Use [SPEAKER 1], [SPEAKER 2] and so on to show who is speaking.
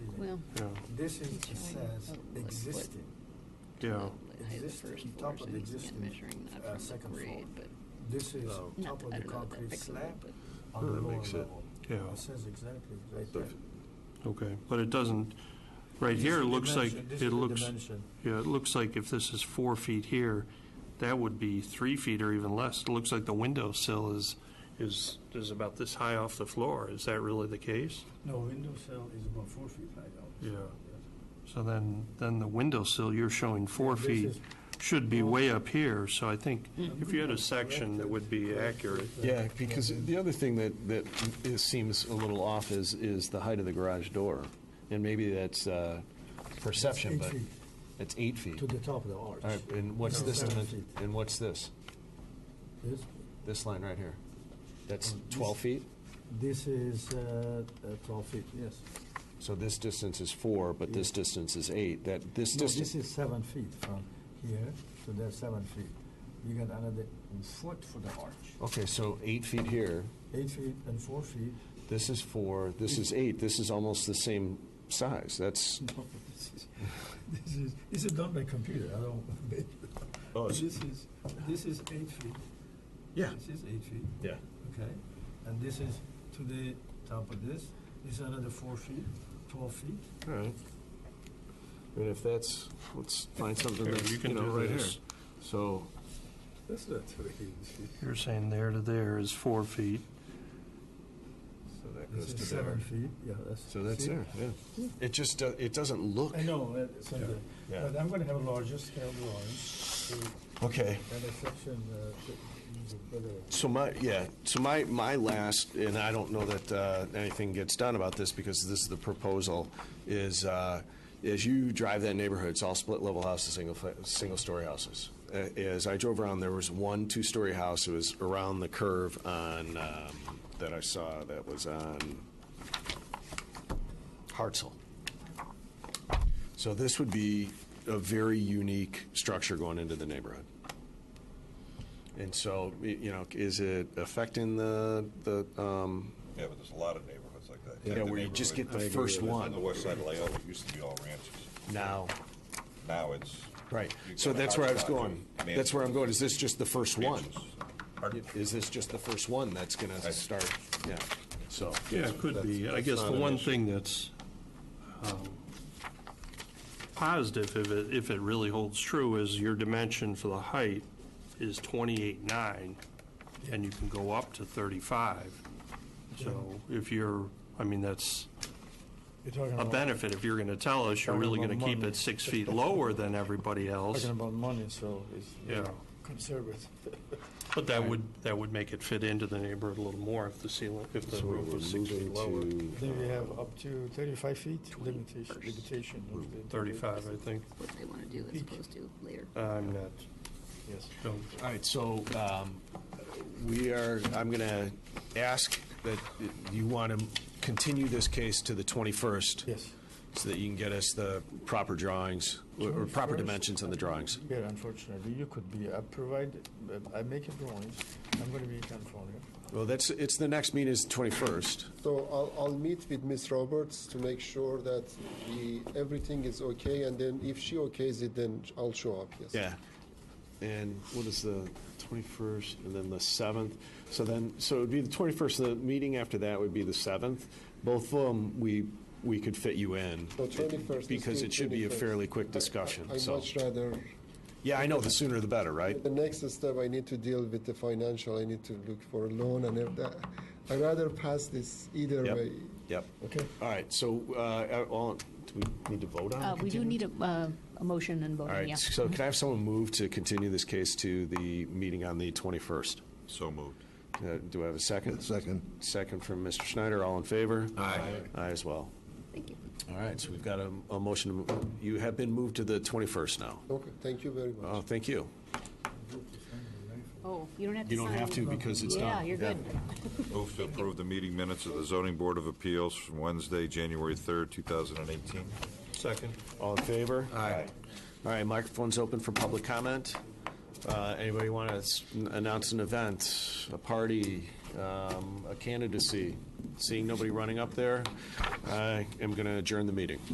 [SPEAKER 1] Well,
[SPEAKER 2] yeah,
[SPEAKER 3] This is,
[SPEAKER 1] He's
[SPEAKER 3] it
[SPEAKER 1] showing
[SPEAKER 3] says
[SPEAKER 1] what- what-
[SPEAKER 3] existing.
[SPEAKER 2] yeah.
[SPEAKER 1] the height of the
[SPEAKER 3] Exist-
[SPEAKER 1] first
[SPEAKER 3] top
[SPEAKER 1] floor,
[SPEAKER 3] of
[SPEAKER 1] so
[SPEAKER 3] the
[SPEAKER 1] he's again
[SPEAKER 3] existing,
[SPEAKER 1] measuring
[SPEAKER 3] uh,
[SPEAKER 1] that from the
[SPEAKER 3] second floor.
[SPEAKER 1] grade, but
[SPEAKER 3] This is
[SPEAKER 4] Oh.
[SPEAKER 3] top of the
[SPEAKER 1] not, I don't know what that
[SPEAKER 3] concrete
[SPEAKER 1] picture,
[SPEAKER 3] slab
[SPEAKER 1] but
[SPEAKER 3] on
[SPEAKER 4] No,
[SPEAKER 3] the
[SPEAKER 4] that
[SPEAKER 3] lower
[SPEAKER 4] makes it-
[SPEAKER 3] level.
[SPEAKER 2] Yeah.
[SPEAKER 3] It says exactly right
[SPEAKER 4] So
[SPEAKER 3] there.
[SPEAKER 4] if-
[SPEAKER 2] Okay, but it doesn't, right
[SPEAKER 3] This
[SPEAKER 2] here,
[SPEAKER 3] is
[SPEAKER 2] it
[SPEAKER 3] the
[SPEAKER 2] looks like,
[SPEAKER 3] dimension-
[SPEAKER 2] it
[SPEAKER 3] This
[SPEAKER 2] looks,
[SPEAKER 3] is the dimension.
[SPEAKER 2] yeah, it looks like if this is four feet here, that would be three feet or even less. It looks like the window sill is, is, is about this high off the floor. Is that really the case?
[SPEAKER 3] No, window sill is about four feet high now.
[SPEAKER 2] Yeah. So then, then the window sill you're showing four
[SPEAKER 3] This
[SPEAKER 2] feet
[SPEAKER 3] is-
[SPEAKER 2] should be way up here, so I think
[SPEAKER 3] Mm.
[SPEAKER 2] if you had a section that would be accurate.
[SPEAKER 4] Yeah, because the other thing that, that is- seems a little off is, is the height of the garage door. And maybe that's uh, perception,
[SPEAKER 3] Eight
[SPEAKER 4] but
[SPEAKER 3] feet
[SPEAKER 4] it's eight feet.
[SPEAKER 3] To
[SPEAKER 4] All
[SPEAKER 3] the top of the arch.
[SPEAKER 4] right, and what's
[SPEAKER 3] No,
[SPEAKER 4] this,
[SPEAKER 3] seven
[SPEAKER 4] dimen-
[SPEAKER 3] feet.
[SPEAKER 4] and what's this?
[SPEAKER 3] This,
[SPEAKER 4] This line right here? That's
[SPEAKER 3] Oh, this-
[SPEAKER 4] 12 feet?
[SPEAKER 3] this is uh, uh, twelve feet, yes.
[SPEAKER 4] So this distance is four, but this
[SPEAKER 3] Yeah.
[SPEAKER 4] distance is eight. That, this
[SPEAKER 3] No, this
[SPEAKER 4] distance,
[SPEAKER 3] is seven feet from here to there, seven feet. You got another foot for the arch.
[SPEAKER 4] okay, so eight feet here,
[SPEAKER 3] Eight feet and four feet.
[SPEAKER 4] this is four, this is eight, this is almost the same size. That's,
[SPEAKER 3] No, this is, this is, this is done by computer, I don't,
[SPEAKER 4] Oh,
[SPEAKER 3] this
[SPEAKER 4] it's-
[SPEAKER 3] is, this is eight feet.
[SPEAKER 4] Yeah.
[SPEAKER 3] This is eight feet,
[SPEAKER 4] yeah.
[SPEAKER 3] okay, and this is to the top of this, this is another four feet, twelve feet.
[SPEAKER 4] All right. And if that's, let's find something
[SPEAKER 2] Here,
[SPEAKER 4] that's,
[SPEAKER 2] you
[SPEAKER 4] you
[SPEAKER 2] can
[SPEAKER 4] know,
[SPEAKER 2] do
[SPEAKER 4] right here.
[SPEAKER 2] this.
[SPEAKER 4] So,
[SPEAKER 3] That's not very easy.
[SPEAKER 2] You're saying there to there is four feet.
[SPEAKER 4] so that
[SPEAKER 3] This is seven feet, yeah, that's.
[SPEAKER 4] So that's
[SPEAKER 3] see?
[SPEAKER 4] there, yeah. It just, do- it doesn't look.
[SPEAKER 3] I know, uh, it's on
[SPEAKER 4] Yeah.
[SPEAKER 3] the-
[SPEAKER 4] Yeah.
[SPEAKER 3] but I'm gonna have a larger scale drawings, to
[SPEAKER 4] Okay.
[SPEAKER 3] kind of section, uh, to- better.
[SPEAKER 4] So my, yeah, so my, my last, and I don't know that uh, anything gets done about this because this is the proposal, is uh, as you drive that neighborhood, it's all split-level houses, single, fa- single-story houses. Uh, As I drove around, there was one two-story house, it was around the curve on, um, that I saw, that was on Hartzell. So this would be a very unique structure going into the neighborhood. And so, y- you know, is it affecting the, the, um,
[SPEAKER 5] Yeah, but there's a lot of neighborhoods like that.
[SPEAKER 4] Yeah,
[SPEAKER 5] Like
[SPEAKER 4] where you just
[SPEAKER 5] neighborhood
[SPEAKER 4] get the I agree first with that. one.
[SPEAKER 5] On the west side of Loyola, it used to be all ranches.
[SPEAKER 4] now?
[SPEAKER 5] Now it's.
[SPEAKER 4] Right,
[SPEAKER 5] you've
[SPEAKER 4] so
[SPEAKER 5] got a
[SPEAKER 4] that's where I was
[SPEAKER 5] hodgepodge of
[SPEAKER 4] going. That's where I'm going, is this just the first one?
[SPEAKER 5] mansions. Pardon?
[SPEAKER 4] Is this just the first one that's gonna
[SPEAKER 5] That's-
[SPEAKER 4] start, yeah, so.
[SPEAKER 2] Yeah, it could be. I
[SPEAKER 4] That's-
[SPEAKER 2] guess
[SPEAKER 4] that's
[SPEAKER 2] the
[SPEAKER 4] not
[SPEAKER 2] one
[SPEAKER 4] an issue.
[SPEAKER 2] thing that's um, positive, if it, if it really holds true, is your dimension for the height is 28.9, and you can go up to 35. So if you're, I mean, that's
[SPEAKER 3] You're talking
[SPEAKER 2] a
[SPEAKER 3] about-
[SPEAKER 2] benefit. If you're going to tell us you're really going
[SPEAKER 3] Talking
[SPEAKER 2] to
[SPEAKER 3] about
[SPEAKER 2] keep
[SPEAKER 3] money.
[SPEAKER 2] it six feet lower than everybody else,
[SPEAKER 3] Talking about money, so it's.
[SPEAKER 2] yeah.
[SPEAKER 3] Conservative.
[SPEAKER 2] But that would, that would make it fit into the neighborhood a little more if the ceiling, if the
[SPEAKER 4] So we're
[SPEAKER 2] roof was six
[SPEAKER 4] moving
[SPEAKER 2] feet lower.
[SPEAKER 6] Then we
[SPEAKER 4] to,
[SPEAKER 6] have up to 35 feet limitation,
[SPEAKER 1] first.
[SPEAKER 6] limitation. of the-
[SPEAKER 2] 35, I think.
[SPEAKER 1] what they want to do as opposed to later.
[SPEAKER 2] I'm not,
[SPEAKER 6] Yes.
[SPEAKER 2] don't
[SPEAKER 4] all right, so, um, we are, I'm gonna ask that you wanna continue this case to the twenty-first.
[SPEAKER 6] Yes,
[SPEAKER 4] so that you can get us the proper drawings, or or proper dimensions on the drawings.
[SPEAKER 6] here unfortunately, you could be, I provide, uh, I make a drawing, I'm going to be in California.
[SPEAKER 4] Well, that's, it's, the next meeting is 21st.
[SPEAKER 7] So I'll, I'll meet with Ms. Roberts to make sure that the, everything is okay, and then if she okays it, then I'll show up, yes.
[SPEAKER 4] Yeah. And what is the 21st, and then the 7th? So then, so it would be the 21st, the meeting after that would be the 7th. Both of them, we, we could fit you in.
[SPEAKER 7] So 21st is
[SPEAKER 4] Because
[SPEAKER 7] still
[SPEAKER 4] it should be a
[SPEAKER 7] 21st.
[SPEAKER 4] fairly quick discussion,
[SPEAKER 7] I- I'd
[SPEAKER 4] so.
[SPEAKER 7] much rather,
[SPEAKER 4] Yeah, I know, the sooner the better, right?
[SPEAKER 7] the next step, I need to deal with the financial, I need to look for a loan and if that, I'd rather pass this either
[SPEAKER 4] Yep.
[SPEAKER 7] way.
[SPEAKER 4] Yep.
[SPEAKER 6] Okay.
[SPEAKER 4] All right, so, uh, all, do we need to vote on it?
[SPEAKER 1] Uh, we do need a, uh, a motion and
[SPEAKER 4] All
[SPEAKER 1] voting, yeah.
[SPEAKER 4] right, so can I have someone move to continue this case to the meeting on the 21st?
[SPEAKER 5] So moved.
[SPEAKER 4] Uh, Do I have a second? Second. Second from Mr. Schneider, all in favor? Aye. Aye as well.
[SPEAKER 1] Thank you.
[SPEAKER 4] All right, so we've got a, a motion, to mo- you have been moved to the 21st now.
[SPEAKER 7] Okay, thank you very much.
[SPEAKER 4] Oh, thank you.
[SPEAKER 1] Oh, you don't have to
[SPEAKER 4] You don't
[SPEAKER 1] sign.
[SPEAKER 4] have to because it's done.
[SPEAKER 1] Yeah, you're good.
[SPEAKER 5] Move to approve the meeting minutes of the zoning board of appeals from Wednesday, January 3rd, 2018.
[SPEAKER 2] Second.
[SPEAKER 4] All in favor? Aye. All right, microphone's open for public comment. Uh, Anybody want to announce an event, a party, um, a candidacy? Seeing nobody running up there, I am going to adjourn the meeting.